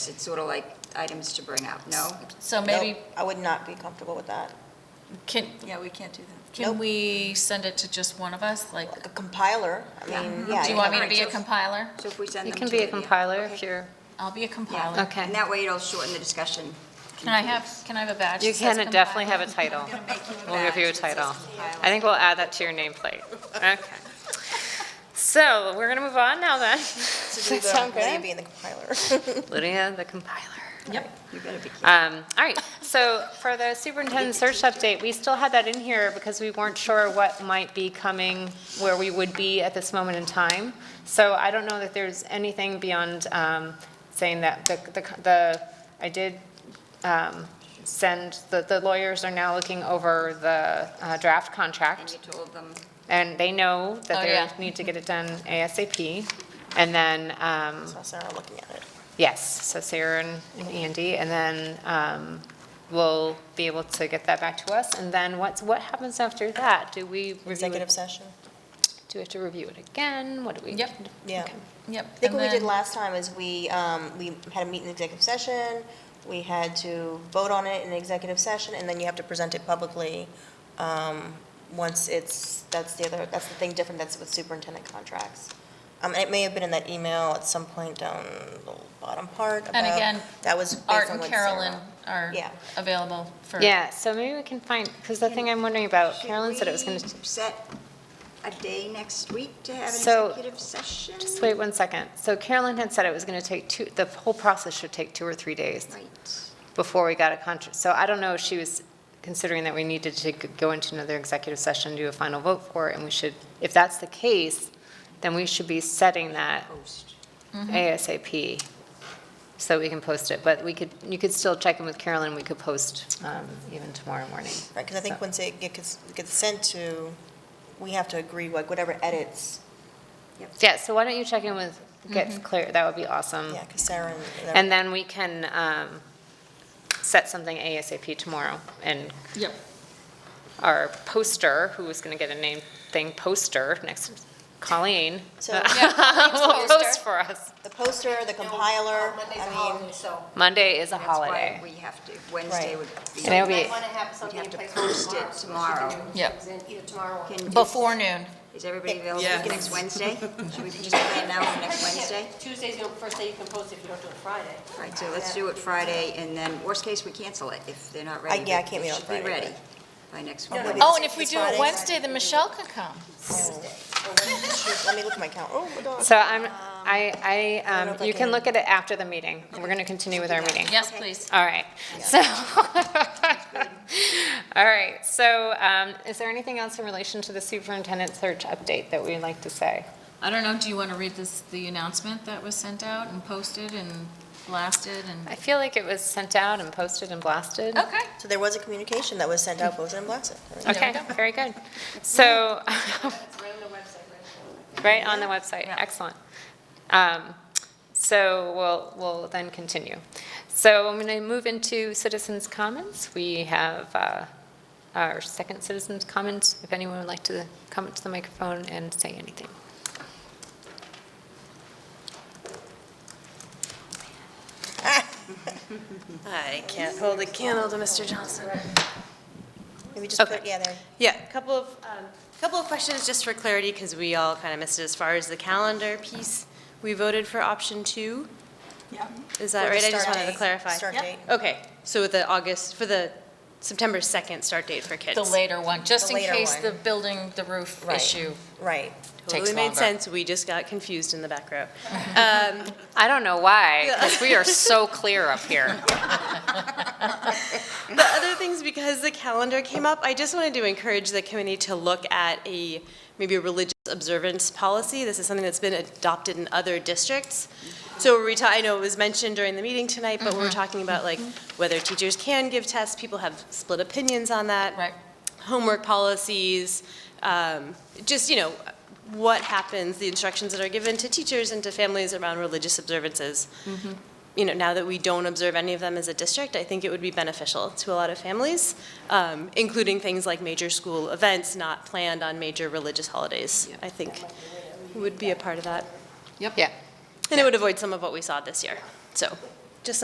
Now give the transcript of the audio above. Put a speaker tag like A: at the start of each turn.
A: It's sort of like items to bring up, no?
B: So maybe,
C: Nope, I would not be comfortable with that.
B: can,
A: Yeah, we can't do that.
B: can
C: Nope.
B: we send it to just one of us? Like,
C: Like a compiler, I
A: Yeah.
C: mean,
A: Do
C: yeah.
B: do you want me to
A: Alright,
B: be a
A: so-
B: compiler?
A: So if we send
D: You
A: them to...
D: can be a
A: Lydia-
D: compiler if
A: Okay.
D: you're,
B: I'll be a
A: Yeah.
B: compiler.
D: Okay.
A: And that way it'll shorten the discussion.
B: Can I have, can I have a badge?
D: you
B: that says
D: can definitely have a
B: compiler?
D: title.
A: I'm gonna make you a
D: We'll give you a
A: badge that says
D: title.
A: compiler.
D: I think we'll add that to your nameplate. Okay. So we're going to move on now then. Does that sound
C: Maybe
D: good?
C: being the compiler.
D: Lydia, the compiler.
B: Yep.
A: You better be kidding.
D: Um, All right, so for the superintendent search update, we still had that in here because we weren't sure what might be coming, where we would be at this moment in time. So I don't know that there's anything beyond um, saying that the, the- the, I did um, send, the the lawyers are now looking over the uh, draft contract.
A: And you told them,
D: And they know
B: Oh,
D: that
B: yeah.
D: they need to get it done ASAP. And then, um,
C: So Sarah looking at it.
D: yes, so Sarah and and Andy, and then um, we'll be able to get that back to us. And then what's, what happens after that? Do we review
C: Executive
D: it?
C: session.
D: Do we have to review it again? What do we?
B: Yep.
C: Yeah.
D: Okay.
B: Yep.
C: I think
B: and
C: what we did
B: then-
C: last time is we, um, we had a meeting in executive session, we had to vote on it in executive session, and then you have to present it publicly, um, once it's, that's the other, that's the thing different, that's with superintendent contracts. Um, it may have been in that email at some point down the bottom part about.
B: And again,
C: that was based
B: Art
C: on
B: and
C: what
B: Carolyn
C: Sarah-
B: are
C: Yeah.
B: available for.
D: Yeah, so maybe we can find, because the thing I'm wondering about, Carolyn said it was going to,
A: Should we set a day next week to have an
D: So-
A: executive session?
D: just wait one second. So Carolyn had said it was going to take two, the whole process should take two or three days.
A: Right.
D: before we got a contract. So I don't know if she was considering that we needed to go into another executive session, do a final vote for it, and we should, if that's the case, then we should be setting that
A: Post.
D: ASAP so we can post it. But we could, you could still check in with Carolyn, we could post um, even tomorrow morning.
C: Right, because I think
D: So-
C: once it gets, gets sent to, we have to agree, like, whatever edits,
D: Yeah, so why don't you check in with, get clear, that would be awesome.
C: yeah, because Sarah and.
D: Mm. And then we can um, set something ASAP tomorrow and
B: Yep.
D: our poster, who was going to get a name thing poster next, Colleen,
C: So
D: will post for us.
C: the poster, the compiler, I mean,
E: so
D: Monday is a
A: That's why
D: holiday.
A: we have to, Wednesday
C: Right.
A: would be...
D: And it'll
E: we
D: be,
E: want to have something
A: have
E: in
A: to
E: place
A: post it tomorrow.
B: Yep.
E: Either tomorrow or.
A: Can-
B: Before noon.
A: Is everybody available next Wednesday? Should we just plan now for next Wednesday?
E: Tuesday's the first day you can post if you don't do it Friday.
A: Right, so let's do it Friday, and then, worst case, we cancel it if they're not ready.
C: yeah, I
A: but
C: can't meet on
A: It should
C: Friday,
A: be ready
C: but-
A: by next
C: no,
A: Friday.
C: no,
B: Oh, and if we
C: It's
B: do it
C: Friday.
B: Wednesday, then Michelle can come.
C: let me look at my calendar, oh, my God.
D: so I'm, I, I,
C: don't know
D: um,
C: if I
D: you can
C: can-
D: look at it after the meeting. We're going to continue with our meeting.
B: Yes, please.
D: All right, so, all right, so um, is there anything else in relation to the superintendent search update that we'd like to say?
B: I don't know, do you want to read this, the announcement that was sent out and posted and blasted and?
D: I feel like it was sent out and posted and blasted.
B: Okay.
C: So there was a communication that was sent out, posted and blasted.
B: we
D: Okay,
B: go.
D: very good. So,
E: It's right on the website, right?
D: Right, on the website, excellent. Um, So we'll, we'll then continue. So I'm going to move into citizens' comments. We have uh, our second citizens' comments, if anyone would like to come to the microphone and say anything.
F: I can't hold a candle to Mr. Johnson.
C: Maybe just put,
F: Okay.
C: yeah, there.
F: Yeah, a couple of, um, couple of questions just for clarity, because we all kind of missed it as far as the calendar piece. We voted for option two? Yeah. Is
C: For
F: that
C: the
F: right? I just
C: start
F: wanted to
C: date.
F: clarify.
C: Start Yep. date.
F: Okay, so with the August, for the September 2nd start date for kids.
B: The later one, just
C: The
B: in
C: later
B: case
C: one.
B: the building, the roof
C: Right.
B: issue
C: Right.
B: takes
F: Totally made
B: longer.
F: sense, we just got confused in the back row.
D: I don't know why, because we are so clear up here.
F: The other things, because the calendar came up, I just wanted to encourage the committee to look at a, maybe a religious observance policy. This is something that's been adopted in other districts. So we're, ta- I know it was mentioned during the meeting tonight, but we're talking about like whether teachers can give tests, people have split opinions on that.
B: Right.
F: Homework policies, um, just, you know, what happens, the instructions that are given to teachers and to families around religious observances you know, now that we don't observe any of them as a district, I think it would be beneficial to a lot of families, um, including things like major school events not planned on major religious holidays. I think would be a part of that.
D: Yeah.
F: And it would avoid some of what we saw this year. So